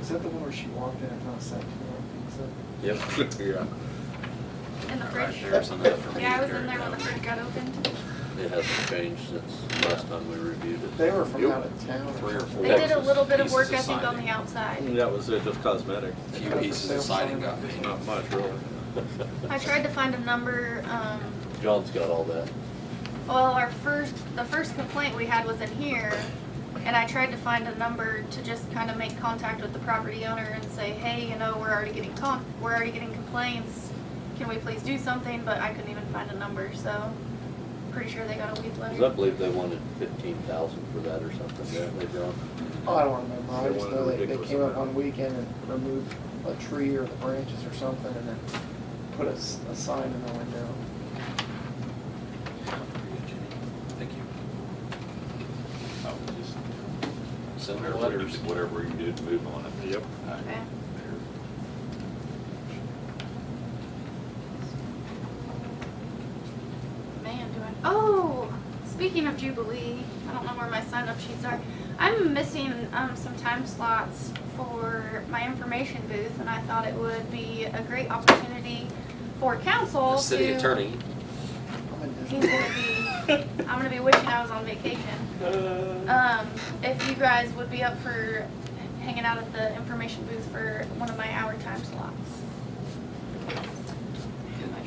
Is that the one where she walked in and found a sack full Yep. Yeah. In the Not right fridge. there, it's enough for me Yeah, I to was carry in there when down. the fridge got opened. It hasn't changed since last time we reviewed of it. pizza? They were from Yep. out of town. Three or four. They did a little bit of Pieces work, I of think, on siding. the outside. Mm, That was it, just cosmetic. A few pieces of siding got painted. Not much, really. I tried to find a number, um, John's got all that. well, our first, the first complaint we had was in here. And I tried to find a number to just kind of make contact with the property owner and say, hey, you know, we're already getting con, we're already getting complaints. Can we please do something? But I couldn't even find a number, so pretty sure they got a weed 'Cause I letter. believe they wanted fifteen thousand for that or something, didn't they, John? Oh, I don't remember. I They just wanted know a they, they ridiculous came up amount. one weekend and removed a tree or the branches or something and then put a, s- a sign in the window. Thank you. I Oh, would just- Send her Whatever you letters. do- Whatever you do, to move on it. Yep. I- Okay. Man, do I. Oh, speaking of Jubilee, I don't know where my sign up sheets are. I'm missing um, some time slots for my information booth, and I thought it would be a great opportunity for council The city to- attorney, I'm in He's Disney. gonna be. I'm gonna be wishing I was on vacation. Um, if you guys would be up for hanging out at the information booth for one of my hour time slots.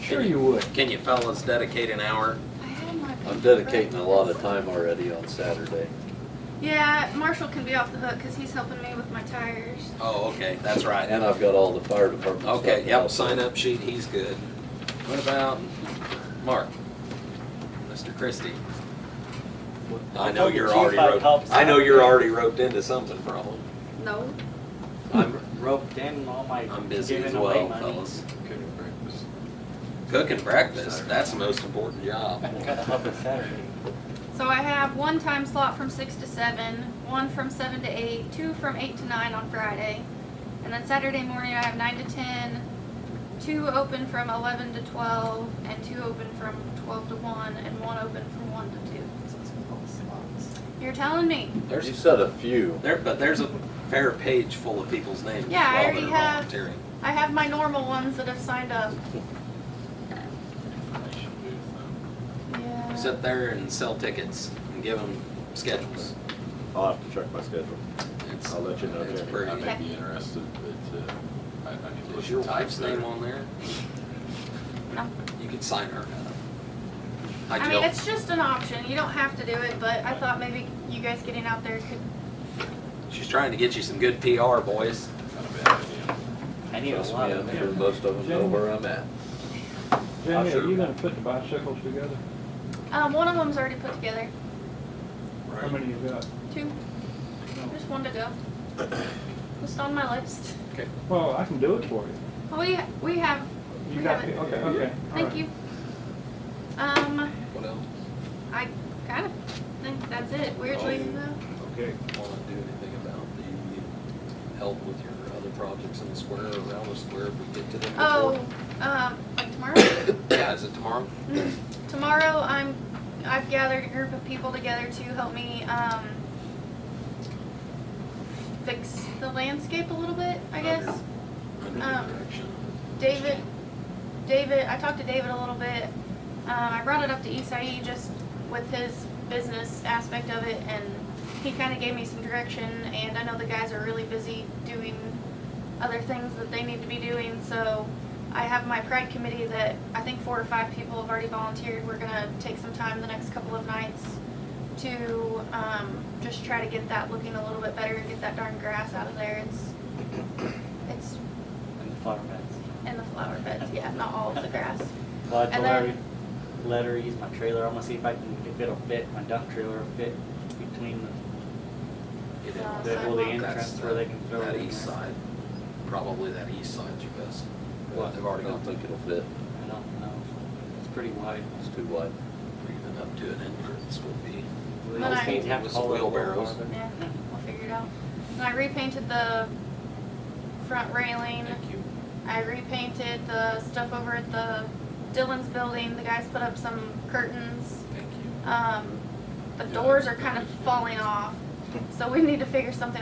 Sure you would. Can you fellas dedicate an hour? I had my I'm paper dedicating a right lot here. of time already on Saturday. Yeah, Marshall can be off the hook because he's helping me with my tires. Oh, okay, that's right. And I've got all the fire department stuff. Okay, now, yep, so- sign up sheet, he's good. What about Mark? Mr. Christie? I know told the you're chief already I'd roped, help I know you're Saturday. already roped into something probably. No. I'm, roped in all my I'm busy as giving away well, money. fellas. Cooking breakfast, that's the most important job. Gotta help it Saturday. So I have one time slot from six to seven, one from seven to eight, two from eight to nine on Friday, and then Saturday morning I have nine to ten, two open from eleven to twelve, and two open from twelve to one, and one open from one to two. So it's called slots. You're telling me? You There's, said a few. there, but there's a fair page full of people's names as Yeah, well I that already are have- volunteering. I have my normal ones that have signed up. Yeah. Sit there and sell tickets and give them schedules. I'll have to check my schedule. It's- I'll let you know, It's Jerry. pretty. I may Okay. be interested, but uh, I, I need to look. Is your at times wife's name there. on there? No. You could sign her. I Hi, mean, Jill. it's just an option. You don't have to do it, but I thought maybe you guys getting out there could. She's trying to get you some good PR, boys. Not a bad idea. I need a Trust me, lot I'm of. sure most of them know where I'm at. Jamie, Sure. are you gonna put the bicycles together? Um, one of them's already put together. How many you got? Two. Just one to go. Just on my list. Well, I can do it for you. Well, we we have. You we got, have the- it. okay, okay. all Thank right. you. Um, What else? I kind of think that's it. Weirdly Oh. though. Okay. Want to do anything about the help with your other projects in the square, around the square, if we get to them Oh, before? um, like tomorrow. Yeah, is it tomorrow? Mm. Tomorrow, I'm, I've gathered a group of people together to help me, um, fix the landscape a little bit, I guess. Under Um, the direction David, David, I talked to David a little bit. Um, I brought it up to Isai just with his business aspect of it and he kind of gave me some direction and I know the guys are really busy doing other things that they need to be doing, so I have my pride committee that I think four or five people have already volunteered. We're gonna take some time the next couple of nights to, um, just try to get that looking a little bit better, get that darn grass out of there. It's, it's And the flower beds. in the flower beds, yeah, not all of the grass. Well, I And told then- her, let her use my trailer, I'm gonna see if I can, if it'll fit, my dump trailer will fit between Get in Uh, on the, the, that. well, the sidewalk. That's entrance where they can the- throw it That in east there. side, probably that east side's your best. What? They've I already got don't think it'll fit. I don't know, it's pretty wide. It's too wide. even up to an entrance would be. We When just I- need to have With to some haul it over. wheelbarrows. Yeah, we'll figure it out. And I repainted the front railing. Thank you. I repainted the stuff over at the Dylan's building. The guys put up some curtains. Thank you. Um, the doors are kind of falling off, so we need to figure something